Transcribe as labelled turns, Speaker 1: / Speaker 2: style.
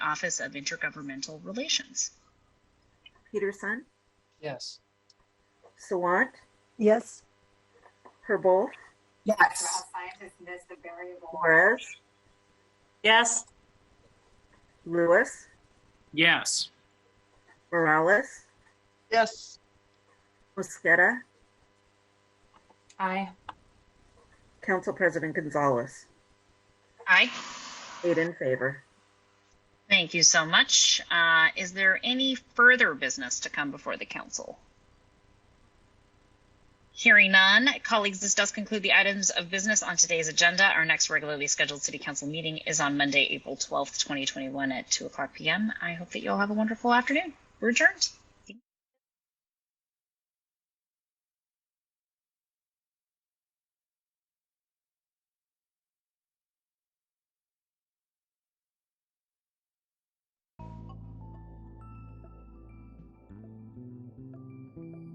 Speaker 1: Office of Intergovernmental Relations.
Speaker 2: Peterson,
Speaker 3: Yes.
Speaker 2: Sawant,
Speaker 4: Yes.
Speaker 2: Herbold,
Speaker 5: The
Speaker 4: Yes.
Speaker 5: health scientist missed the variable.
Speaker 2: Juarez,
Speaker 6: yes,
Speaker 2: Lewis,
Speaker 3: Yes.
Speaker 2: Morales,
Speaker 7: yes,
Speaker 2: Mosqueda,
Speaker 6: aye,
Speaker 2: Council President Gonzalez.
Speaker 1: Aye.
Speaker 2: Eight in favor.
Speaker 1: Thank you so much. Uh, Is there any further business to come before the council? Hearing none, colleagues, this does conclude the items of business on today's agenda. Our next regularly scheduled city council meeting is on Monday, April 12th, 2021 at 2 o'clock PM. I hope that you all have a wonderful afternoon. We're adjourned.